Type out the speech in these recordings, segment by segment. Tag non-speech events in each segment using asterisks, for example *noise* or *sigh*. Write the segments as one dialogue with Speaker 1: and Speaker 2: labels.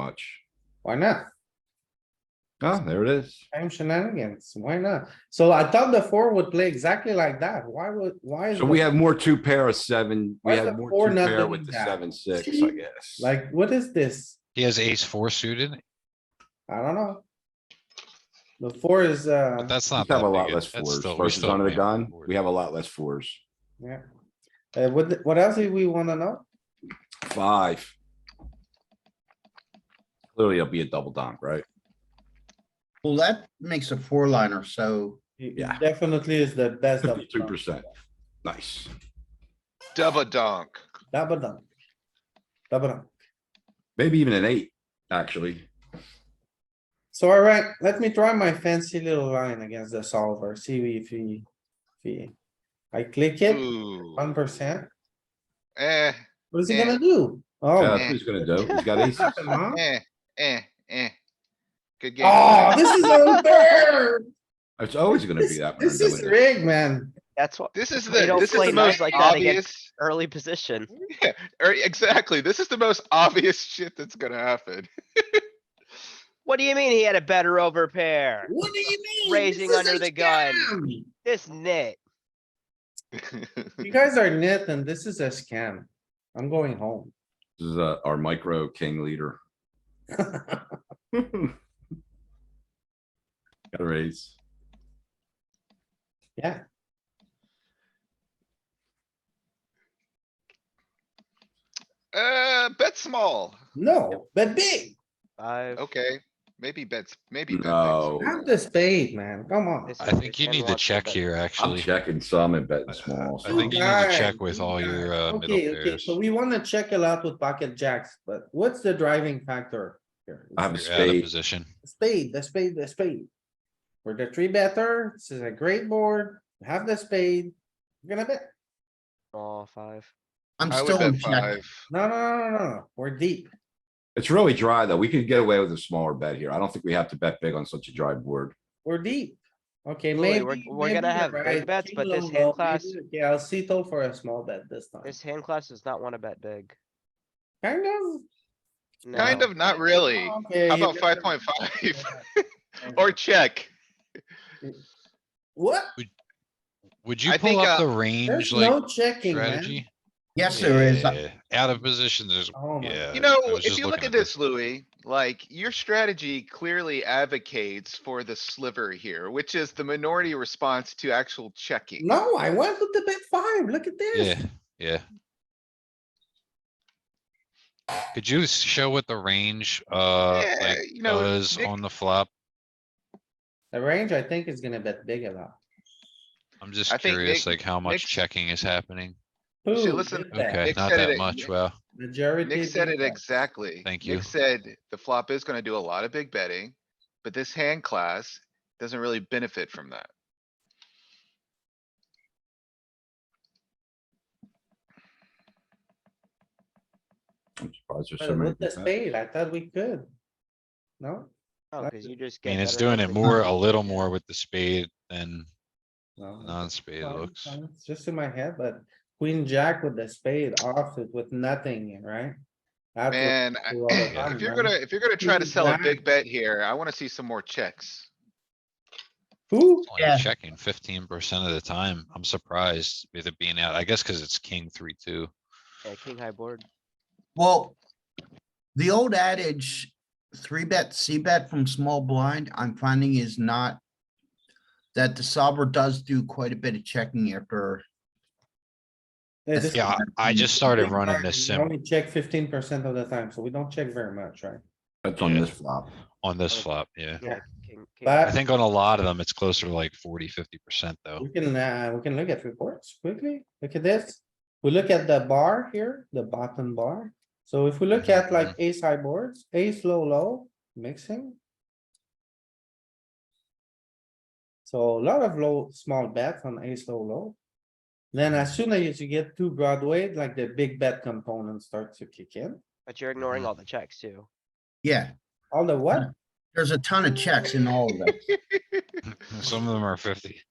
Speaker 1: much.
Speaker 2: Why not?
Speaker 1: Ah, there it is.
Speaker 2: Same shenanigans. Why not? So I thought the four would play exactly like that. Why would, why? is
Speaker 1: So we
Speaker 2: the-
Speaker 1: have more two pair of seven, we
Speaker 2: Why is
Speaker 1: have
Speaker 2: the
Speaker 1: more
Speaker 2: four
Speaker 1: two
Speaker 2: not
Speaker 1: pair with
Speaker 2: doing
Speaker 1: the
Speaker 2: that?
Speaker 1: seven, six, I guess.
Speaker 2: Like, what is this?
Speaker 3: He has ace four suited,
Speaker 2: I don't know. The four is, uh,
Speaker 3: but that's
Speaker 1: We
Speaker 3: not.
Speaker 1: have
Speaker 3: that
Speaker 1: a lot
Speaker 3: big a-
Speaker 1: less
Speaker 3: that's
Speaker 1: fours
Speaker 3: still- we
Speaker 1: versus
Speaker 3: still
Speaker 1: under the
Speaker 3: man on
Speaker 1: gun.
Speaker 3: board.
Speaker 1: We have a lot less fours.
Speaker 2: yeah. Uh, what, what else do we wanna know?
Speaker 1: Five. Clearly, it'll be a double dunk, right?
Speaker 4: Well, that makes a four liner, so
Speaker 2: It- it
Speaker 1: Yeah.
Speaker 2: Definitely is the best of.
Speaker 1: Fifty-two percent. Nice.
Speaker 5: Double dunk.
Speaker 2: Double down. Double down.
Speaker 1: Maybe even an eight, actually.
Speaker 2: So alright, let me try my fancy little line against the solver, see if he, if he. I click it,
Speaker 5: Ooh,
Speaker 2: one percent.
Speaker 5: eh,
Speaker 2: What is he
Speaker 5: Yeah.
Speaker 2: gonna do?
Speaker 1: Yeah,
Speaker 2: Oh.
Speaker 1: That's what he's gonna
Speaker 2: *laughs*
Speaker 1: do. He's got aces.
Speaker 2: huh?
Speaker 5: eh, eh, eh. Good game.
Speaker 6: Ah,
Speaker 2: Oh, this is
Speaker 3: *laughs*
Speaker 2: unfair.
Speaker 1: It's always gonna be
Speaker 2: This
Speaker 1: that. when
Speaker 2: this
Speaker 1: I'm
Speaker 2: is
Speaker 1: doing it.
Speaker 2: rigged, man.
Speaker 6: That's what
Speaker 5: This is the,
Speaker 6: They don't
Speaker 5: this is
Speaker 6: play
Speaker 5: the
Speaker 6: knives
Speaker 5: most
Speaker 6: like that again.
Speaker 5: obvious,
Speaker 6: early position.
Speaker 5: yeah, er, exactly. This is the most obvious shit that's gonna happen.
Speaker 6: What do you mean he had a better overpair?
Speaker 2: What do you mean?
Speaker 6: Raising
Speaker 2: This is
Speaker 6: under
Speaker 2: a
Speaker 6: the gun.
Speaker 2: scam.
Speaker 6: This nit.
Speaker 2: You guys are net and this is a scam. I'm going home. *laughs*
Speaker 1: This is uh, our micro king leader. Gotta raise.
Speaker 2: Yeah,
Speaker 5: Uh, bet small.
Speaker 2: no, but big.
Speaker 6: Five.
Speaker 5: Okay, maybe bets, maybe. bet big
Speaker 1: No.
Speaker 5: small.
Speaker 2: Have the spade, man. Come on.
Speaker 6: This
Speaker 3: I
Speaker 6: is-
Speaker 3: think you
Speaker 6: and
Speaker 3: need to
Speaker 6: wants
Speaker 3: check
Speaker 6: bet.
Speaker 3: here,
Speaker 1: I'm
Speaker 3: actually.
Speaker 1: checking some and betting
Speaker 3: I-
Speaker 1: small.
Speaker 3: I think
Speaker 1: some.
Speaker 3: you need to
Speaker 2: guys,
Speaker 3: check with
Speaker 2: you
Speaker 3: all your uh, middle
Speaker 2: Okay, okay,
Speaker 3: pairs.
Speaker 2: so we wanna check a lot with pocket jacks, but what's the driving factor? here?
Speaker 1: I have a
Speaker 3: You're out of
Speaker 1: spade.
Speaker 3: position.
Speaker 2: Spade, the spade, the spade. We're the three better. This is a great board. Have the spade. You're gonna bet.
Speaker 6: Small five.
Speaker 4: I'm
Speaker 5: I would
Speaker 4: still in
Speaker 5: bet
Speaker 4: check.
Speaker 5: five.
Speaker 2: No, no, no, no, no. We're deep.
Speaker 1: It's really dry, though. We could get away with a smaller bet here. I don't think we have to bet big on such a dry board.
Speaker 2: We're deep. Okay,
Speaker 6: Louis,
Speaker 2: maybe.
Speaker 6: we're- we're gonna
Speaker 2: maybe you're
Speaker 6: have big
Speaker 2: right.
Speaker 6: bets,
Speaker 2: King
Speaker 6: but this
Speaker 2: low,
Speaker 6: hand
Speaker 2: low,
Speaker 6: class-
Speaker 2: maybe- Okay, I'll see toe for a small bet this time.
Speaker 6: This hand class does not wanna bet big.
Speaker 2: Kind of.
Speaker 5: Kind
Speaker 6: No.
Speaker 5: of, not really.
Speaker 2: Okay,
Speaker 5: How
Speaker 2: you
Speaker 5: about
Speaker 2: better-
Speaker 5: five point five? *laughs*
Speaker 2: *laughs*
Speaker 5: Or check.
Speaker 2: What?
Speaker 3: Would you
Speaker 5: I
Speaker 3: pull
Speaker 5: think,
Speaker 3: up
Speaker 5: uh,
Speaker 3: the range
Speaker 2: There's no
Speaker 3: like
Speaker 2: checking, man.
Speaker 3: strategy?
Speaker 4: Yes, there is.
Speaker 3: Yeah, Out of position, there's,
Speaker 2: Oh my,
Speaker 3: yeah.
Speaker 5: You know,
Speaker 3: I was
Speaker 5: if
Speaker 3: just
Speaker 5: you look
Speaker 3: looking
Speaker 5: at this, Louis, like your strategy clearly advocates for the sliver here, which is the minority response to actual checking.
Speaker 2: no, I went with the bet five. Look at
Speaker 3: Yeah,
Speaker 2: this.
Speaker 3: yeah. Could you s- show what the range, uh,
Speaker 5: Yeah,
Speaker 3: like
Speaker 5: you know,
Speaker 3: was
Speaker 5: Nick-
Speaker 3: on the flop?
Speaker 2: The range, I think, is gonna bet big a lot.
Speaker 3: I'm just
Speaker 5: I think
Speaker 3: curious,
Speaker 5: Nick-
Speaker 3: like how much
Speaker 5: Nick's-
Speaker 3: checking is happening?
Speaker 5: See,
Speaker 2: Boom,
Speaker 5: listen-
Speaker 2: big bet.
Speaker 3: Okay,
Speaker 5: Nick
Speaker 3: not
Speaker 5: said
Speaker 3: that
Speaker 5: it-
Speaker 3: much,
Speaker 5: Nick-
Speaker 3: well,
Speaker 2: Majority.
Speaker 5: Nick said
Speaker 2: big
Speaker 5: it
Speaker 2: bet.
Speaker 5: exactly.
Speaker 3: Thank you.
Speaker 5: Nick said the flop is gonna do a lot of big betting, but this hand class doesn't really benefit from that.
Speaker 1: I'm surprised there's so
Speaker 2: But
Speaker 1: many.
Speaker 2: With the
Speaker 1: good bets.
Speaker 2: spade, I thought we could. No?
Speaker 6: No, Oh, cause you just
Speaker 3: I
Speaker 6: get.
Speaker 3: mean, it's
Speaker 6: better
Speaker 3: doing it
Speaker 6: overpair.
Speaker 3: more, a little more with the spade than non-spade it
Speaker 2: Fine,
Speaker 3: looks.
Speaker 2: fine, It's just in my head, but queen jack with the spade off it with nothing, in, right? That's what
Speaker 5: Man, I-
Speaker 2: we do all the time,
Speaker 5: *laughs* if you're
Speaker 2: man.
Speaker 5: gonna, if you're gonna try to
Speaker 2: Queen
Speaker 5: sell a
Speaker 2: jack.
Speaker 5: big bet here, I wanna see some more checks.
Speaker 2: Who?
Speaker 3: Only
Speaker 4: Yeah.
Speaker 3: Checking fifteen percent of the time. I'm surprised with it being out, I guess cuz it's king three, two.
Speaker 6: Yeah, king
Speaker 3: *laughs*
Speaker 6: high board.
Speaker 4: Well, the old adage, three bet, C bet from small blind, I'm finding is not that the solver does do quite a bit of checking after.
Speaker 2: This is-
Speaker 3: Yeah, I I just started
Speaker 2: we
Speaker 3: running
Speaker 2: only-
Speaker 3: this
Speaker 2: we
Speaker 3: sim
Speaker 2: Only check fifteen percent of the time, so we don't check very much, right?
Speaker 1: That's on
Speaker 3: Yeah.
Speaker 1: this flop.
Speaker 3: on this
Speaker 6: Okay.
Speaker 3: flop, yeah.
Speaker 6: Yeah, king, king.
Speaker 2: But-
Speaker 3: I think on a lot of them, it's closer to like 40, 50 percent though.
Speaker 2: We can, uh, we can look at reports quickly. Look at this. We look at the bar here, the bottom bar. So if we look at like ace high boards, ace low, low, mixing. So a lot of low, small bets on ace low, low. Then as soon as you get to Broadway, like the big bet component starts to kick in.
Speaker 6: But you're ignoring
Speaker 3: Mhm.
Speaker 6: all the checks too.
Speaker 4: Yeah,
Speaker 2: All the what?
Speaker 4: there's a ton of checks in all of that.
Speaker 3: *laughs* Some of them are fifty.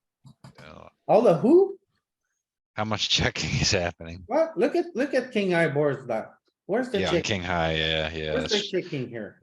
Speaker 3: Yeah.
Speaker 2: All the who?
Speaker 3: How much checking *laughs* is happening?
Speaker 2: What? Look at, look at king high boards that. Where's the
Speaker 3: Yeah, on
Speaker 2: chick?
Speaker 3: king high, yeah, yeah.
Speaker 2: Where's the
Speaker 3: that's-
Speaker 2: checking here?